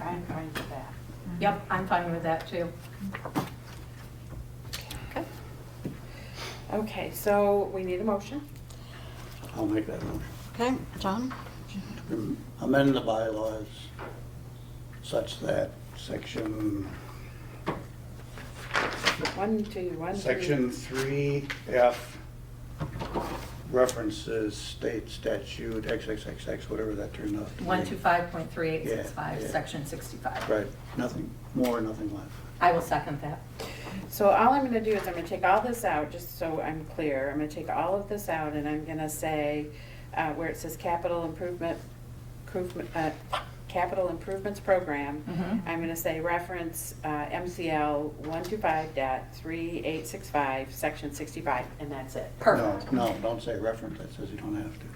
I'm fine with that. Yep, I'm fine with that too. Okay. Okay, so we need a motion. I'll make that motion. Okay, John? To Amend the bylaws such that section, One, two, one, two. section three F references state statute XXXX, whatever that turned out to be. One two five point three eight six Yeah, five, yeah. section sixty-five. Right, nothing more, nothing less. I will second that. So all I'm gonna do is I'm gonna take all this out, just so I'm clear. I'm gonna take all of this out and I'm gonna say, uh, where it says capital improvement, improvement, uh, capital improvements program, Mhm. I'm gonna say reference, uh, MCL one two five dot three eight six five, section sixty-five, and that's it. Perfect. No, no, don't say reference, that says you don't have to.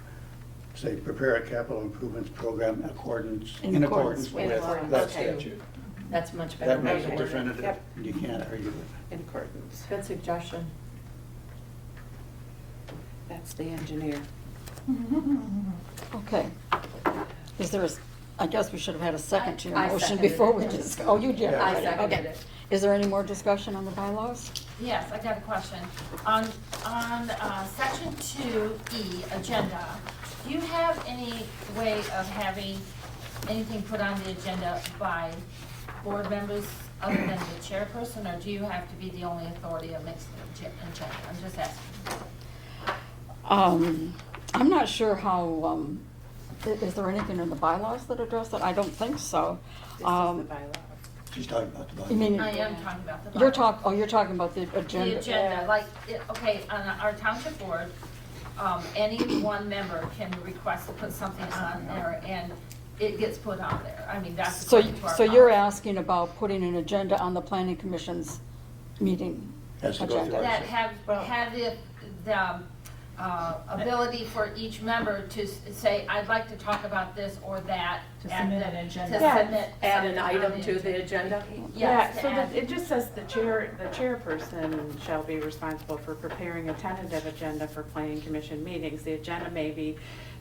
Say, prepare a capital improvements program in accordance, In in accordance with- accordance with In that accordance, okay. statute. That's much better. That makes Okay. it definitive, Yep. and you can't argue with it. In accordance. Good suggestion. That's the engineer. Okay. Is there a, s- I guess we should have had a second to your I- I motion seconded before it. we just, oh, you did. Yeah. I already. seconded Okay. it. Is there any more discussion on the bylaws? Yes, I got a question. On, on uh, section two E, agenda, do you have any way of having anything put on the agenda by board members other than the chairperson, or do you have to be the only authority that makes the ag- agenda? I'm just asking. Um, I'm not sure how, um, i- is there anything in the bylaws that address that? I don't think so. This is the Um, bylaw. She's talking about the bylaw. You mean- I am talking about the. You're bylaw. talk, oh, you're talking about the The agenda. agenda, like, it- okay, on our township board, um, any one member can request to put something on there, and it gets put on there. I mean, that's So, according to our. so you're policy. asking about putting an agenda on the planning commission's meeting? Has to go through agenda. our That have, have the, the um, uh, ability for each member to s- say, I'd like to talk about this or that. To at submit the- an agenda. to Yeah, submit Add an something on item to the agenda? Yes, Yeah, to so add. that, it just says the chair, the chairperson shall be responsible for preparing a tentative agenda for planning commission meetings. The agenda may be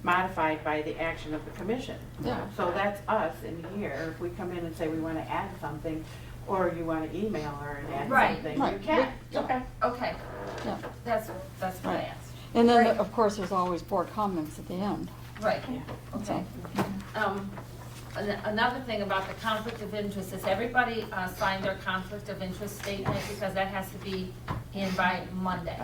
modified by the action of the commission. Yeah. So that's us in here, if we come in and say we wanna add something, or you wanna email her and Right. add something, Right. you can. Yeah. Okay, Yeah. that's, that's what I Right. asked. And then, Right. of course, there's always board comments at the end. Right, So- okay. Um, an- Another thing about the conflict of interest is everybody uh, signed their conflict of interest statement because that has to be in by Monday.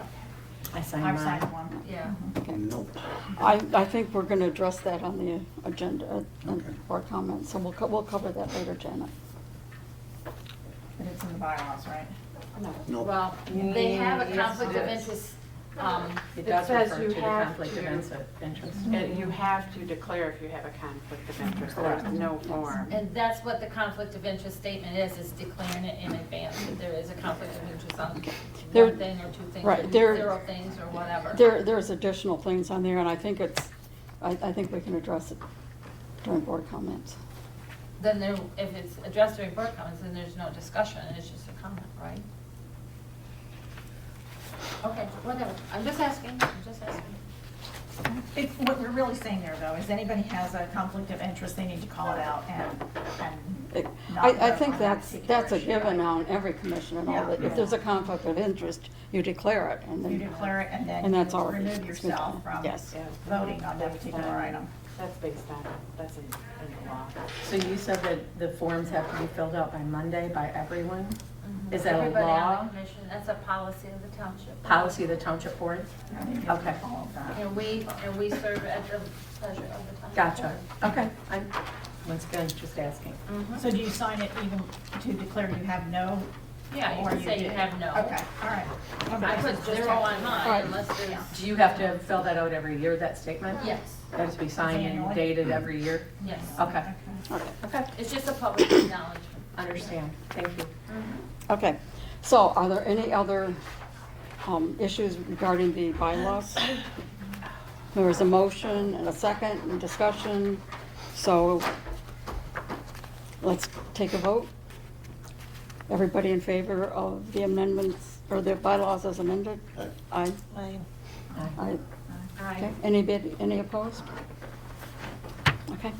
I signed I've mine. signed one. Mm-hmm. Yeah, Nope. I, I think we're gonna address that on the agenda Okay. and board comments, so we'll, co- we'll cover that later, Janet. But it's in the bylaws, right? Mm-hmm. Nope. well, they have a Yes, conflict of it is. interest, um, It It does says refer you to the have conflict of to- Mm-hmm. inse- interest. And you have to declare if you have a conflict of interest, there's no form. and that's what the conflict of interest statement is, is declaring it in advance that there is a conflict of interest on There- one thing or two things, right, or there- zero things or whatever. There, there's additional things on there, and I think it's, I, I think we can address it during board comments. Then there, if it's addressed during board comments, then there's no discussion, it's just a comment, right? Okay, whatever, I'm just asking, I'm just asking. It, what we're really saying there though, is anybody has a conflict of interest, they need to call it out and, I, and. not I vote on think that that's, particular that's a issue. given on every commission and all, that if there's a conflict of interest, you declare it, and You then. declare it and then And that's you already- remove it's been done. yourself from Yes. Yeah. voting on that particular item. That's based on, that's in, in the law. So you said that the forms have to be filled out by Monday by everyone? Is that a Mm-hmm. Everybody on law? the commission, that's a policy of the township. Policy of the township board? Okay. All of that. And we, and we serve at the pleasure of the township. Gotcha. Okay. I'm, once again, just asking. Mhm. So do you sign it even to declare you have no? Yeah, you or can say you did? have no. Okay, all right. Okay, I so put it's just zero have- Right. on mine unless there's, Do you have to fill that out every year, that statement? yes, That has to be signed and Annually? dated every year? yes. Okay, Okay. okay, It's just a public acknowledgement. Mm-hmm. understand. Thank you. Okay, so are there any other um, issues regarding the bylaws? There was a motion and a second and discussion, so let's take a vote. Everybody in favor of the amendments, or the bylaws as amended? Aye. Aye. Aye. Aye. Aye. Okay, anybody, any opposed? Okay.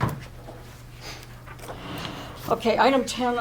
Okay, item 10